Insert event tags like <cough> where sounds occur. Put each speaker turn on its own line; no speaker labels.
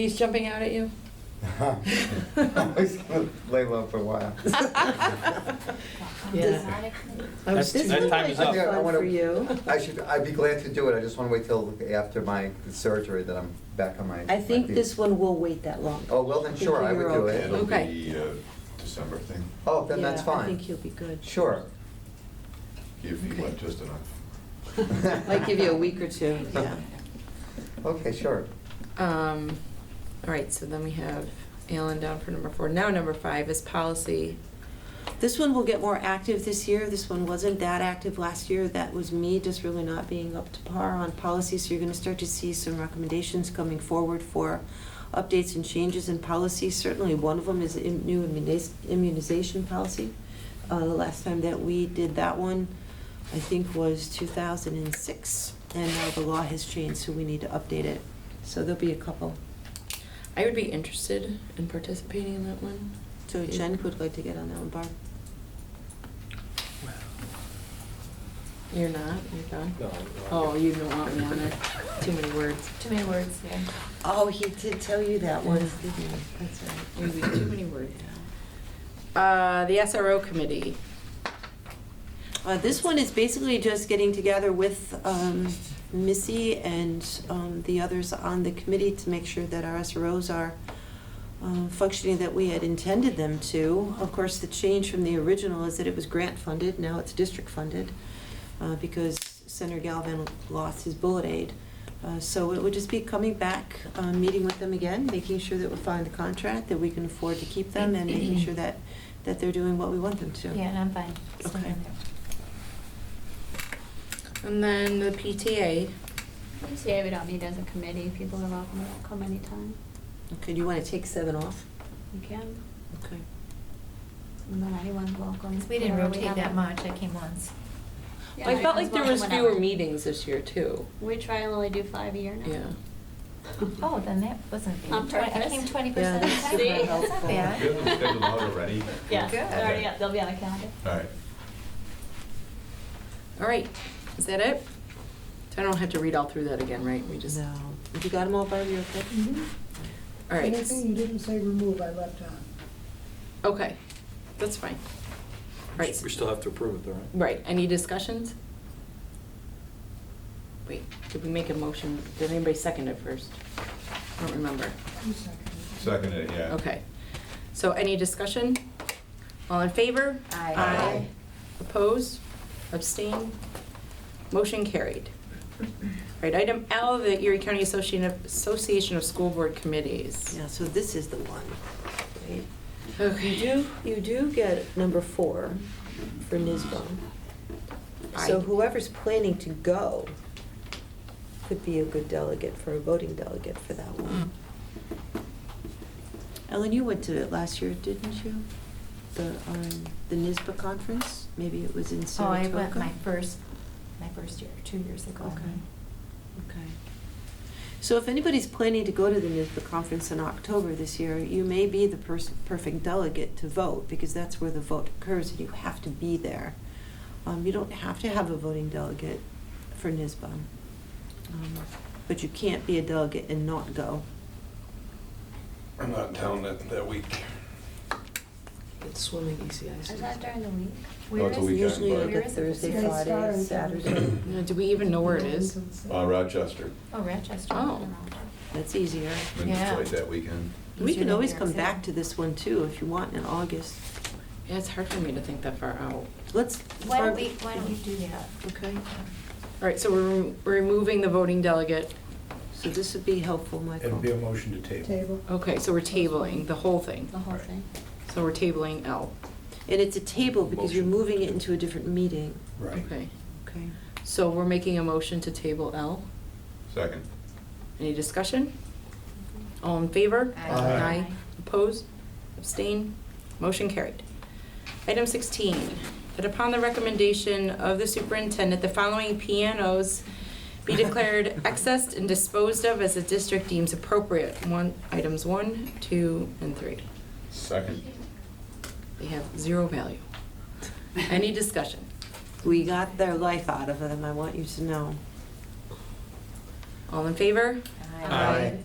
He's jumping out at you?
I was gonna lay low for a while.
Yeah. I was-
Oh, This
That
was
time
like
is up.
I
fun
wanna-
for you.
I should, I'd be glad to do it, I just wanna wait till after my surgery that I'm back on my.
I think
my feet.
this one will wait that long.
Oh, well then,
I think
sure, I
you're
would do
okay.
it.
It'll
Okay.
be a December thing,
Oh, then that's
Yeah, I
fine.
think you'll be good.
Sure.
if you went just enough.
<laughs> Might give you a week or two,
<laughs>
yeah.
Okay, sure.
Um, All right, so then we have Alan down for number four. Now, number five is policy.
This one will get more active this year. This one wasn't that active last year. That was me just really not being up to par on policy. So you're going to start to see some recommendations coming forward for updates and changes in policy. Certainly, one of them is im- new immuniz- immunization policy. Uh, The last time that we did that one, I think, was 2006. And now the law has changed, so we need to update it. So there'll be a couple.
I would be interested in participating in that one.
So Jen would like to get on that one, Barb.
You're not? You're done?
No, I'm not.
Oh, you don't want me on there. Too many words.
Too many words, yeah.
Oh, he did tell you that
one.
That's right.
It would be too many words. Uh, The SRO committee.
Uh, this one is basically just getting together with, um, Missy and, um, the others on the committee to make sure that our SROs are, um, functioning that we had intended them to. Of course, the change from the original is that it was grant funded, now it's district funded, uh, because Senator Galvin lost his bullet aid. Uh, so it would just be coming back, uh, meeting with them again, making sure that we find the contract, that we can afford to keep them, and making sure that, that they're doing what we want them to.
Yeah, and I'm fine. Still
Okay.
on there.
And then the PTA.
PTA, we don't need as a committee, people are welcome to come anytime,
Okay, do you want to take seven off?
you can,
Okay.
and then anyone's welcome.
We didn't
whenever
rotate
have
that
them.
much, I came once.
Yeah,
I felt
everyone's
like there was
welcome
fewer
whenever.
meetings this year, too.
We try and only do five a year now.
Yeah.
<laughs>
Oh, then that wasn't bad.
On
I
purpose.
came twenty percent of the
Yeah,
time.
that's
See?
That's
Do
not
you have them
bad.
scheduled out already?
Yeah,
Good.
they're already up, they'll be on the calendar.
All right.
All right, is that it? So I don't have to read all through that again, right? We just,
No. Mm-hmm. If you got them all, Barb, you're okay?
all right.
Anything you didn't say remove, I left on.
Okay, that's fine. All Right,
We
s-
still have to approve it, though, right?
right, any discussions? Wait, did we make a motion? Did anybody second it first? I don't remember.
You seconded it.
Seconded, yeah.
Okay. So any discussion? All in favor?
Aye.
Aye.
Oppose? Abstain? Motion carried. Right, item L, the Erie County Association of, Association of School Board Committees.
Yeah, so this is the one. right?
Okay.
You do, you do get number four for NISBA.
I-
So whoever's planning to go could be a good delegate for, a voting delegate for that one. Mm. Ellen, you went to it last year, didn't you? The, um, the NISBA conference? Maybe it was in
Oh, I
Saratoga?
went my first, my first year, two years ago.
Okay. Okay. So if anybody's planning to go to the NISBA conference in October this year, you may be the pers- perfect delegate to vote, because that's where the vote occurs, and you have to be there. Um, you don't have to have a voting delegate for NISBA. Um, But you can't be a delegate and not go.
I'm not in town that, that week.
It's swimming E easy ice.
Is that during the week?
Well, Oh, it's a weekend,
Usually
but-
like
Where
a
is it?
Thursday,
It's
Friday,
Saturday.
Saturday.
Now, Do we even know where it is?
Uh, Rochester.
Oh, Rochester.
Oh.
<coughs> That's easier.
Been to
Yeah.
Detroit that weekend.
We can always come
Yeah.
back to this one too, if you want, in August.
Yeah, it's hard for me to think that far out.
Let's.
Why don't we, why don't we do that?
Okay.
All right, so we're rem- we're removing the voting delegate.
So this would be helpful, Michael.
It'd be a motion to table.
Table.
Okay, so we're tabling the whole thing.
The whole thing.
So we're tabling L.
And it's a table because you're
Motion.
moving it into a different meeting.
Right.
Okay,
Okay.
so we're making a motion to table L.
Second.
Any discussion? All in favor?
Aye.
Aye. Opposed? Abstain? Motion carried. Item 16, that upon the recommendation of the superintendent, the following pianos be declared accessed and disposed of as the district deems appropriate. One, items one, two, and three.
Second.
They have zero value. Any discussion?
We got their life out of them, I want you to know.
All in favor?
Aye.
Aye.